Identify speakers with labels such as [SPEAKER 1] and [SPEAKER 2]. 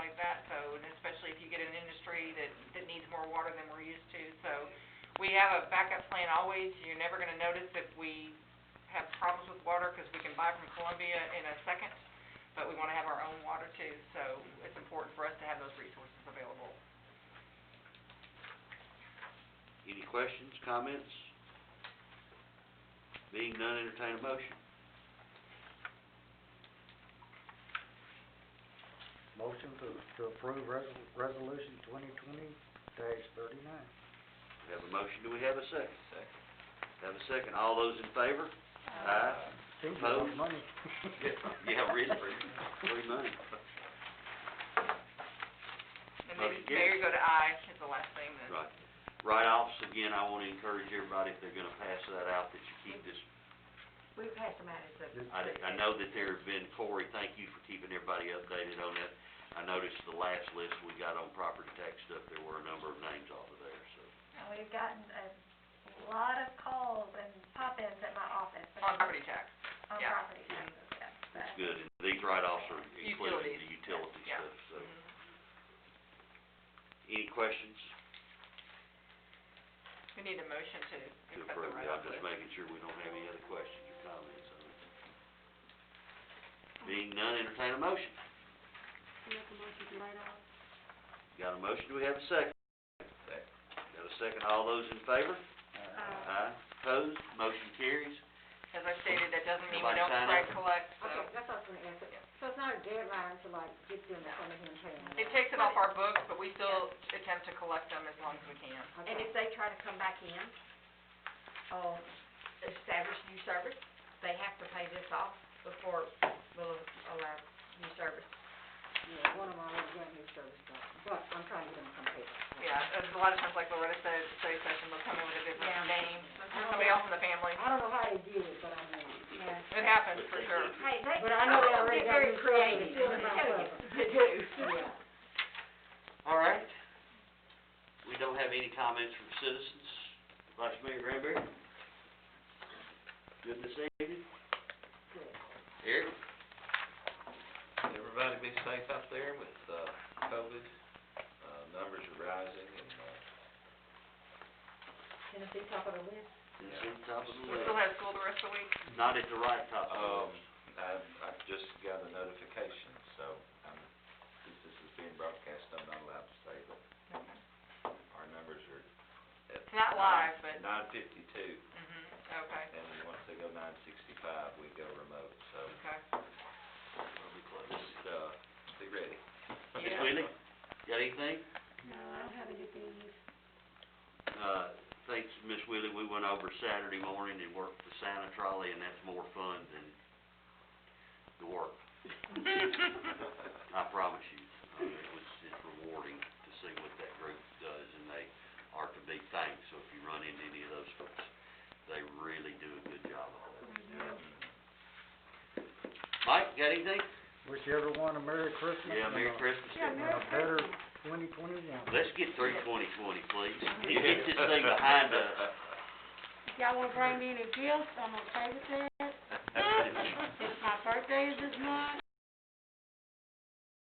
[SPEAKER 1] we have a backup plan always, you're never gonna notice if we have problems with water, 'cause we can buy from Columbia in a second, but we wanna have our own water too, so it's important for us to have those resources available.
[SPEAKER 2] Any questions, comments? Being none, entertain a motion.
[SPEAKER 3] Motion to, to approve resol- resolution twenty twenty dash thirty-nine.
[SPEAKER 2] We have a motion, do we have a second?
[SPEAKER 4] Second.
[SPEAKER 2] Have a second, all those in favor? Aye.
[SPEAKER 3] Seems a lot of
[SPEAKER 2] Opposed?
[SPEAKER 3] money.
[SPEAKER 2] Yeah, really, free money.
[SPEAKER 1] And maybe,
[SPEAKER 2] Vote
[SPEAKER 1] there you go to I, is the last thing that.
[SPEAKER 2] Right. Write-offs, again, I wanna encourage everybody, if they're gonna pass that out, that you keep this,
[SPEAKER 1] We passed them out as a.
[SPEAKER 2] I, I know that there have been, Corey, thank you for keeping everybody updated on that. I noticed the last list we got on property tax stuff, there were a number of names off of there, so.
[SPEAKER 5] And we've gotten a lot of calls and pop-ins at my office.
[SPEAKER 1] On property tax.
[SPEAKER 5] On
[SPEAKER 1] yeah.
[SPEAKER 5] property taxes, yeah, but.
[SPEAKER 2] That's good, and these write-offs are included in the
[SPEAKER 1] Utilities.
[SPEAKER 2] utility
[SPEAKER 1] Yeah.
[SPEAKER 2] stuff, so.
[SPEAKER 1] Mhm.
[SPEAKER 2] Any questions?
[SPEAKER 1] We need a motion to
[SPEAKER 2] to
[SPEAKER 1] accept the
[SPEAKER 2] approve it,
[SPEAKER 1] write-off
[SPEAKER 2] I'm just
[SPEAKER 1] list.
[SPEAKER 2] making sure we don't have any other questions or comments on it. Being none, entertain a motion. Got a motion, do we have a second?
[SPEAKER 4] Second.
[SPEAKER 2] Got a second, all those in favor?
[SPEAKER 6] Uh,
[SPEAKER 3] Aye.
[SPEAKER 2] Aye, opposed, motion carries.
[SPEAKER 1] As I stated, that doesn't mean we
[SPEAKER 2] Nobody
[SPEAKER 1] don't
[SPEAKER 2] sign
[SPEAKER 1] try
[SPEAKER 2] up?
[SPEAKER 1] to collect, so.
[SPEAKER 6] Okay, that's what I was gonna ask,
[SPEAKER 1] Yeah.
[SPEAKER 6] so it's not a deadline to like get them in front of him and pay them?
[SPEAKER 1] It takes it off our books, but we still attempt to collect them as long as we can.
[SPEAKER 6] Okay.
[SPEAKER 5] And if they try to come back in, um, establish new service, they have to pay this off before we'll allow new service.
[SPEAKER 6] Yeah, one of them already got his service dog, but I'm trying to get him some paper.
[SPEAKER 1] Yeah, and a lot of times, like Loretta said, at the study session, they'll come in with a different
[SPEAKER 5] Yeah.
[SPEAKER 1] name, or somebody else in the family.
[SPEAKER 6] I don't know how they did it, but I mean, yeah.
[SPEAKER 1] It happens, for sure.
[SPEAKER 5] Hey, they,
[SPEAKER 6] But I know they
[SPEAKER 5] they'll
[SPEAKER 6] already
[SPEAKER 5] get
[SPEAKER 6] got
[SPEAKER 5] very
[SPEAKER 6] new service.
[SPEAKER 5] creative,
[SPEAKER 6] Still
[SPEAKER 5] let me
[SPEAKER 6] not
[SPEAKER 5] tell you.
[SPEAKER 6] covered.
[SPEAKER 5] They do.
[SPEAKER 6] Yeah.
[SPEAKER 2] All right. We don't have any comments from citizens. Vice Mayor Granberry? Good this evening? Eric?
[SPEAKER 4] Everybody be safe out there with, uh, COVID, uh, numbers are rising and, uh,
[SPEAKER 6] Tennessee top of the list.
[SPEAKER 2] It's in top of the
[SPEAKER 1] We still
[SPEAKER 2] list.
[SPEAKER 1] have school the rest of the week.
[SPEAKER 2] Not at the right top of the
[SPEAKER 4] um,
[SPEAKER 2] list.
[SPEAKER 4] I've, I've just got a notification, so, um, since this is being broadcast, I'm not allowed to say that our numbers are at.
[SPEAKER 1] It's not live, but-
[SPEAKER 4] Nine fifty-two,
[SPEAKER 1] Mhm, okay,
[SPEAKER 4] and once they go nine sixty-five, we go remote, so,
[SPEAKER 1] okay.
[SPEAKER 2] We'll be close.
[SPEAKER 4] just, uh, be ready.
[SPEAKER 2] Ms.
[SPEAKER 1] Yeah.
[SPEAKER 2] Whitley, got anything?
[SPEAKER 6] No, I don't have anything.
[SPEAKER 2] Uh, thanks, Miss Willie, we went over Saturday morning and worked the Santa trolley, and that's more fun than the work, I promise you. I mean, It was, it's rewarding to see what that group does, and they are to be thanked, so if you run into any of those folks, they really do a good job of it. Mike, got anything?
[SPEAKER 3] Wish everyone a Merry Christmas.
[SPEAKER 2] Yeah,
[SPEAKER 3] and
[SPEAKER 2] Merry
[SPEAKER 3] a-
[SPEAKER 2] Christmas.
[SPEAKER 6] Yeah,
[SPEAKER 3] And
[SPEAKER 6] Merry
[SPEAKER 3] a better twenty twenty-one.
[SPEAKER 2] Let's get through twenty twenty, please, and get this thing behind us.
[SPEAKER 6] If y'all wanna bring me any gifts, I'm okay with that.
[SPEAKER 4] us.
[SPEAKER 6] my birthday is this month,